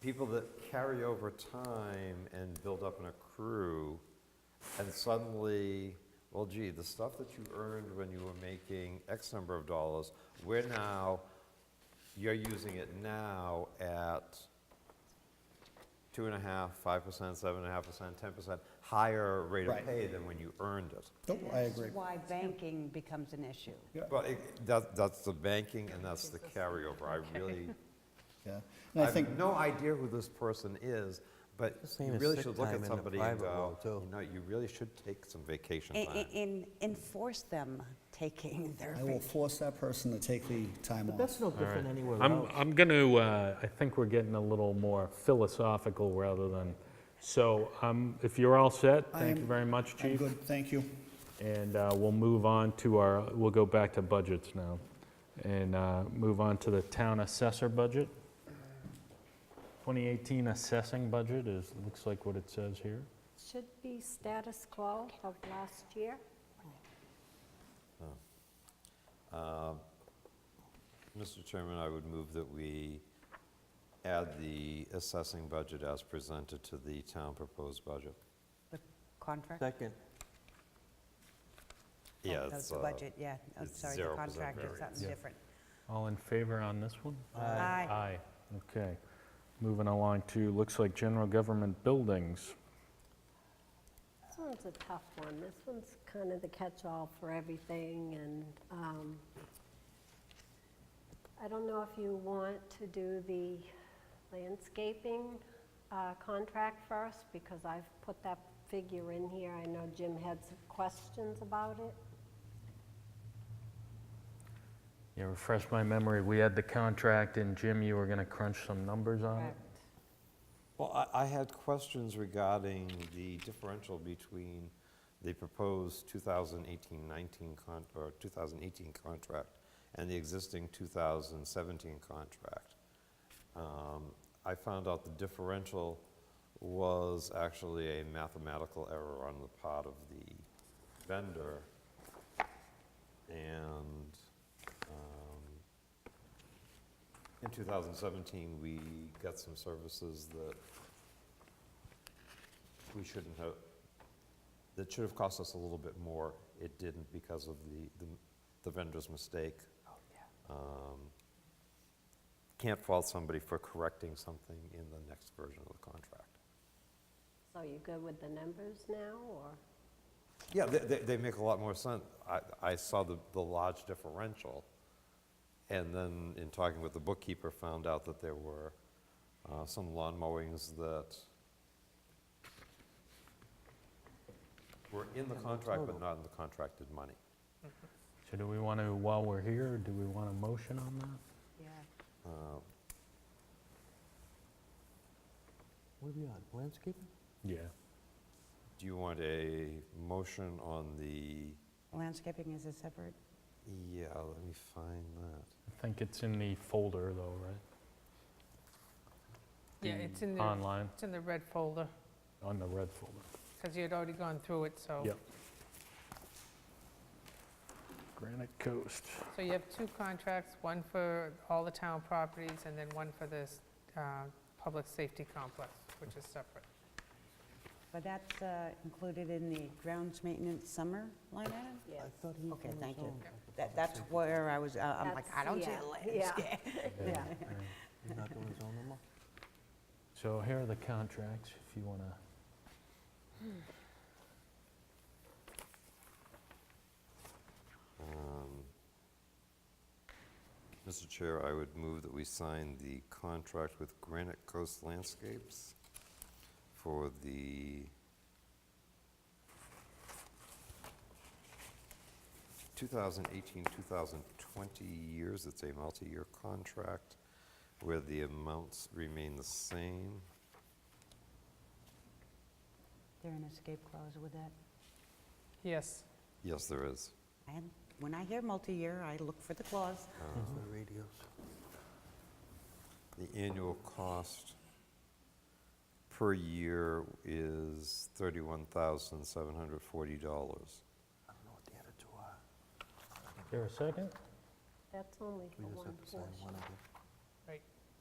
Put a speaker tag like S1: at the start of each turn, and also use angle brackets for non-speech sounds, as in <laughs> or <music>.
S1: people that carry over time and build up and accrue, and suddenly, well, gee, the stuff that you earned when you were making X number of dollars, we're now, you're using it now at two and a half, five percent, seven and a half percent, ten percent, higher rate of
S2: Right.
S1: pay than when you earned it.
S2: Nope, Oh, I agree.
S3: That's why banking becomes an issue.
S1: Well, it- that, that's the banking and that's the carryover. I really,
S2: Yeah.
S1: I
S2: And I think,
S1: have no idea who this person is, but
S4: The same
S1: you
S4: as
S1: really
S4: sick
S1: should look
S4: time
S1: at
S4: in the
S1: somebody and
S4: private
S1: go,
S4: world, too.
S1: you know, you really should take some vacation
S3: And,
S1: time.
S3: enforce them taking their
S2: I will
S3: vacation.
S2: force that person to take the time
S5: But
S2: off.
S5: that's no different anywhere
S6: I'm,
S5: else.
S6: I'm going to, I think we're getting a little more philosophical rather than, so um, if you're all set,
S2: I
S6: thank you
S2: am-
S6: very much,
S2: I'm
S6: Chief.
S2: good, thank you.
S6: And uh, we'll move on to our, we'll go back to budgets now and uh, move on to the town assessor budget. 2018 assessing budget is, looks like what it says here.
S7: Should be status quo of last year.
S1: Mr. Chairman, I would move that we add the assessing budget as presented to the town proposed budget.
S3: The <laughs> contract?
S4: Second.
S3: Oh,
S1: Yeah,
S3: that was
S1: it's,
S3: the
S1: uh,
S3: budget, yeah. Oh,
S1: it's
S3: Sorry, the
S1: 0%
S3: contract is
S1: variance.
S3: something
S6: Yeah.
S3: different.
S6: All in favor on this one?
S2: Uh,
S3: Aye.
S6: Aye, okay. Moving along to, looks like general government buildings.
S7: This one's a tough one. This one's kind of the catch-all for everything, and um, I don't know if you want to do the landscaping uh, contract first, because I've put that figure in here. I know Jim had some questions about it.
S6: Yeah, refresh my memory, we had the contract, and Jim, you were gonna crunch some numbers on it?
S7: Correct.
S1: Well, I, I had questions regarding the differential between the proposed 2018-19 con, or 2018 contract and the existing 2017 contract. Um, I found out the differential was actually a mathematical error on the part of the vendor. And, um, in 2017, we got some services that we shouldn't have, that should have cost us a little bit more. It didn't because of the- the the vendor's mistake. Um, Can't fault somebody for correcting something in the next version of the contract.
S7: So you good with the numbers now, or?
S1: Yeah, they- they, they make a lot more sense. I, I saw the, the large differential, and then in talking with the bookkeeper, found out that there were uh, some lawn mowings that were in the contract, but not in the contracted money.
S6: So do we wanna, while we're here, do we want a motion on that?
S3: Yeah.
S1: Uh,
S4: What are we on, landscaping?
S6: Yeah.
S1: Do you want a motion on the,
S3: Landscaping is a separate,
S1: yeah, let me find that.
S6: I think it's in the folder though, right?
S8: Yeah,
S6: The
S8: it's in the,
S6: Online,
S8: it's in the red folder,
S6: on the red folder.
S8: because you had already gone through it, so.
S6: Yep. Granite
S8: <laughs>
S6: Coast.
S8: So you have two contracts, one for all the town properties, and then one for this uh, public safety complex, which is separate.
S3: but that's uh, included in the grounds maintenance summer line item?
S7: Yes.
S3: Okay, thank you. That, that's where I was, uh, I'm like, I
S7: That's-
S3: don't see
S7: yeah,
S3: a
S7: yeah.
S3: landscape. <laughs>
S7: Yeah.
S4: He's not doing his own no more?
S6: So here are the contracts, if you wanna.
S1: Um, Mr. Chair, I would move that we sign the contract with Granite Coast Landscapes for the 2018-2020 years. It's a multi-year contract where the amounts remain the same.
S3: There an escape clause with that?
S8: Yes,
S1: Yes, there is.
S3: And when I hear multi-year, I look for the clause.
S4: It's the radios.
S1: The annual cost per year is $31,740.
S4: I don't know what the other two are.
S6: Here a second?
S7: That's only for
S4: We just
S7: one
S4: have to sign
S7: portion.
S4: one of them.